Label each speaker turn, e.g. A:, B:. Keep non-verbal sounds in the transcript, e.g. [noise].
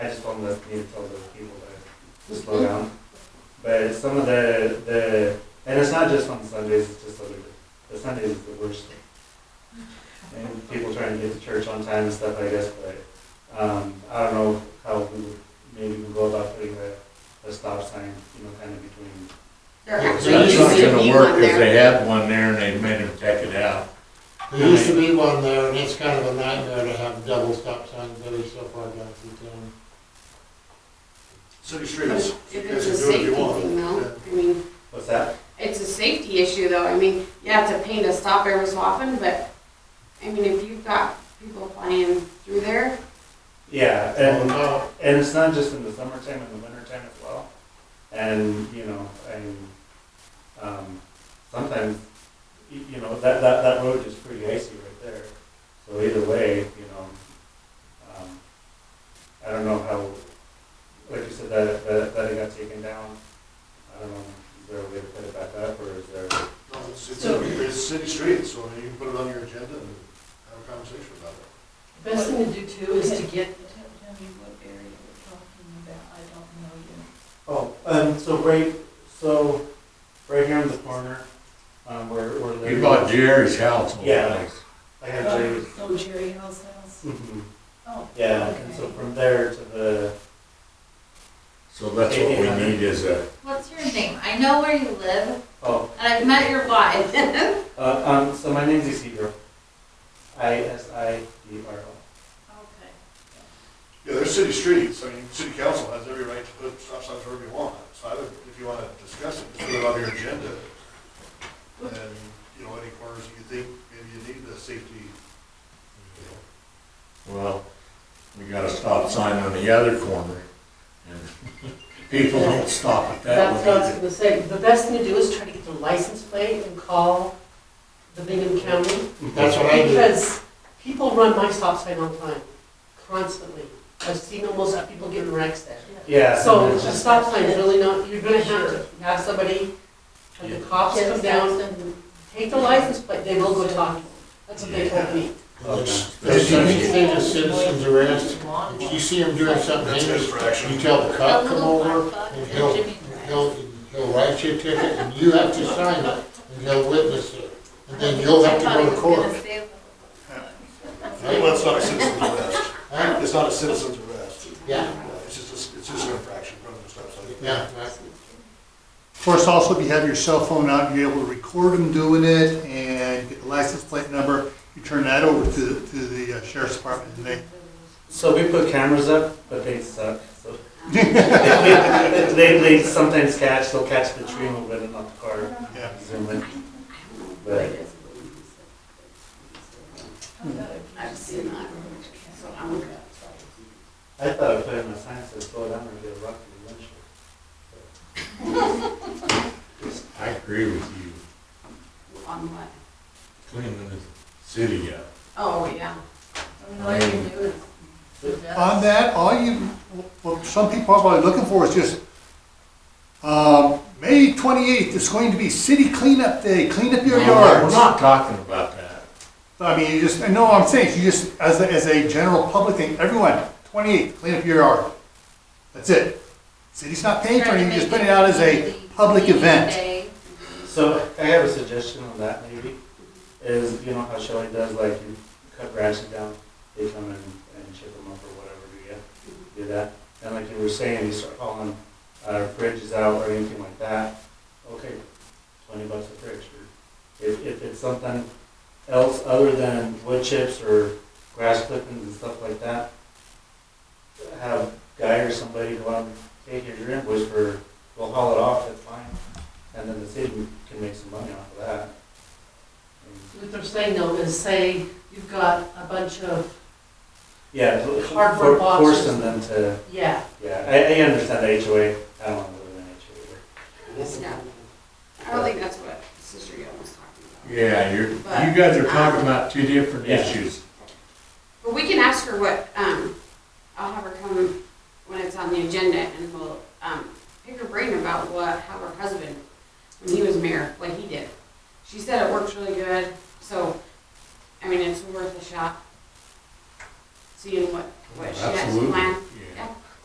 A: I just want to need to tell those people to slow down. But some of the the and it's not just on Sundays. It's just other the Sundays is the worst. And people trying to get to church on time and stuff. I guess, but um, I don't know how we would maybe we go about putting a, a stop sign, you know, kind of between.
B: There
C: That's
A: So
C: used
A: it's
C: to
A: not
C: be
D: gonna
C: one
D: work if
C: there.
D: they had one there and they made them take it out.
B: There used to be one there, and it's kind of a nightmare to have double stop signs very so far down through town.
E: City
C: But
E: streets,
C: If
E: you
C: it's
E: guys
C: a
E: can
C: safety
E: do what you want.
C: thing though, I mean,
A: What's that?
C: it's a safety issue though, I mean, you have to paint a stop every so often, but, I mean, if you've got people flying through there,
A: Yeah,
B: Oh,
A: and
B: no,
A: And it's not just in the summertime, in the wintertime as well. And, you know, and, um, sometimes, y- you know, that, that, that road is pretty icy right there. So either way, you know, um, I don't know how, like you said, that, that, that it got taken down. I don't know, is there a way to put it back up or is there?
E: No, it's- It's it's city streets, so you can put it on your agenda and have a conversation about it.
F: Best thing to do too is to get, tell me what area we're talking about, I don't know yet.
A: Oh, um, so right, so right here in the corner, um, where, where.
D: You bought Jerry's house. old
A: Yeah.
D: place.
A: I have Jerry's.
F: Oh, Jerry Hill's house, oh.
A: Mm-hmm. Yeah,
F: okay.
A: and so from there to the,
D: So that's what we need is a,
G: What's your name? I know where you live,
A: oh,
G: and I've met your wife.
A: uh, um, so my name's Isidro. I S I D R O.
E: Yeah, there's city streets, I mean, city council has every right to put stop signs wherever you want, so I would, if you wanna discuss it, just put it on your agenda. And, you know, any corners you think maybe you need the safety, you know,
D: well, we got a stop sign on the other corner. and
C: [laughs]
D: People don't stop at that
F: That's
D: one
F: what I was
D: either.
F: gonna say, the best thing to do is try to get the license plate and call the Bingham County,
B: That's
A: Oh,
B: what I do.
F: because people run my stop sign on time, constantly. I've seen almost people getting wrecks there.
A: Yeah.
F: So
A: and
F: the
A: it's just-
F: stop sign is really not, you're gonna have to have somebody, like the cops come down, take the license plate, they will go talk. That's what they told me.
A: Okay.
B: If you think the citizens arrest, if you see them doing something
E: that's
B: dangerous,
E: infraction.
B: you tell the cop come over, and he'll, he'll, he'll write you a ticket, and you have to sign it, and he'll witness it. And then you'll have to go to court.
E: Well, it's not a citizen's arrest,
B: Huh?
E: it's not a citizen's arrest,
B: Yeah,
E: Uh, it's just, a- it's just an infraction, rather than a stop sign.
B: yeah, that's-
H: Of course, also if you have your cell phone out, you're able to record them doing it and get the license plate number. You turn that over to, to the uh, sheriff's department and they,
A: So we put cameras up, but they suck,
F: [laughs]
A: so. [laughs] They, they- they sometimes catch, they'll catch the tree moving and not the car.
E: Yeah.
A: Zoom in. But,
C: I've
F: I've
C: seen that, so I'm,
A: I thought I put in my sign says slow down or get a rock in the windshield.
D: I agree with you,
C: on what?
D: cleaning the city up.
C: Oh, yeah.
H: on that, all you, what some people are probably looking for is just, um, May twenty-eighth is going to be city cleanup day, clean up your
B: Oh,
D: No, We're
H: yards.
D: not talking about that.
H: I mean, you just, I know what I'm saying, you just, as a, as a general public thing, everyone, twenty-eighth, clean up your yard. That's it. City's not paying for it, you just put it out as a public event.
A: So I have a suggestion on that maybe, is, you know how Shelley does, like you cut branches down, they come and, and chip them up or whatever, do you? Do that, and like you were saying, you start hauling, uh, fridges out or anything like that, okay, twenty bucks a fridge. or If, if it's something else other than wood chips or grass clippings and stuff like that, have guy or somebody go out and take your invoice for, we'll haul it off, that's fine. And then the city can make some money off of that.
F: What they're saying though is say, you've got a bunch of,
A: Yeah, so
F: Cardboard
A: for-
F: boxes.
A: forcing them to,
F: yeah,
A: yeah, I, I understand the HOA, I don't want to live in an HOA.
C: Yeah. I don't think that's what Sister Yvonne was talking about.
D: Yeah, you're, you guys are talking about two different
A: Yeah.
D: issues.
C: But we can ask her what, um, I'll have her come when it's on the agenda and we'll, um, pick her brain about what, how her husband, when he was mayor, what he did. She said it works really good, so, I mean, it's worth a shot. Seeing what, what she has
D: Absolutely.
C: planned.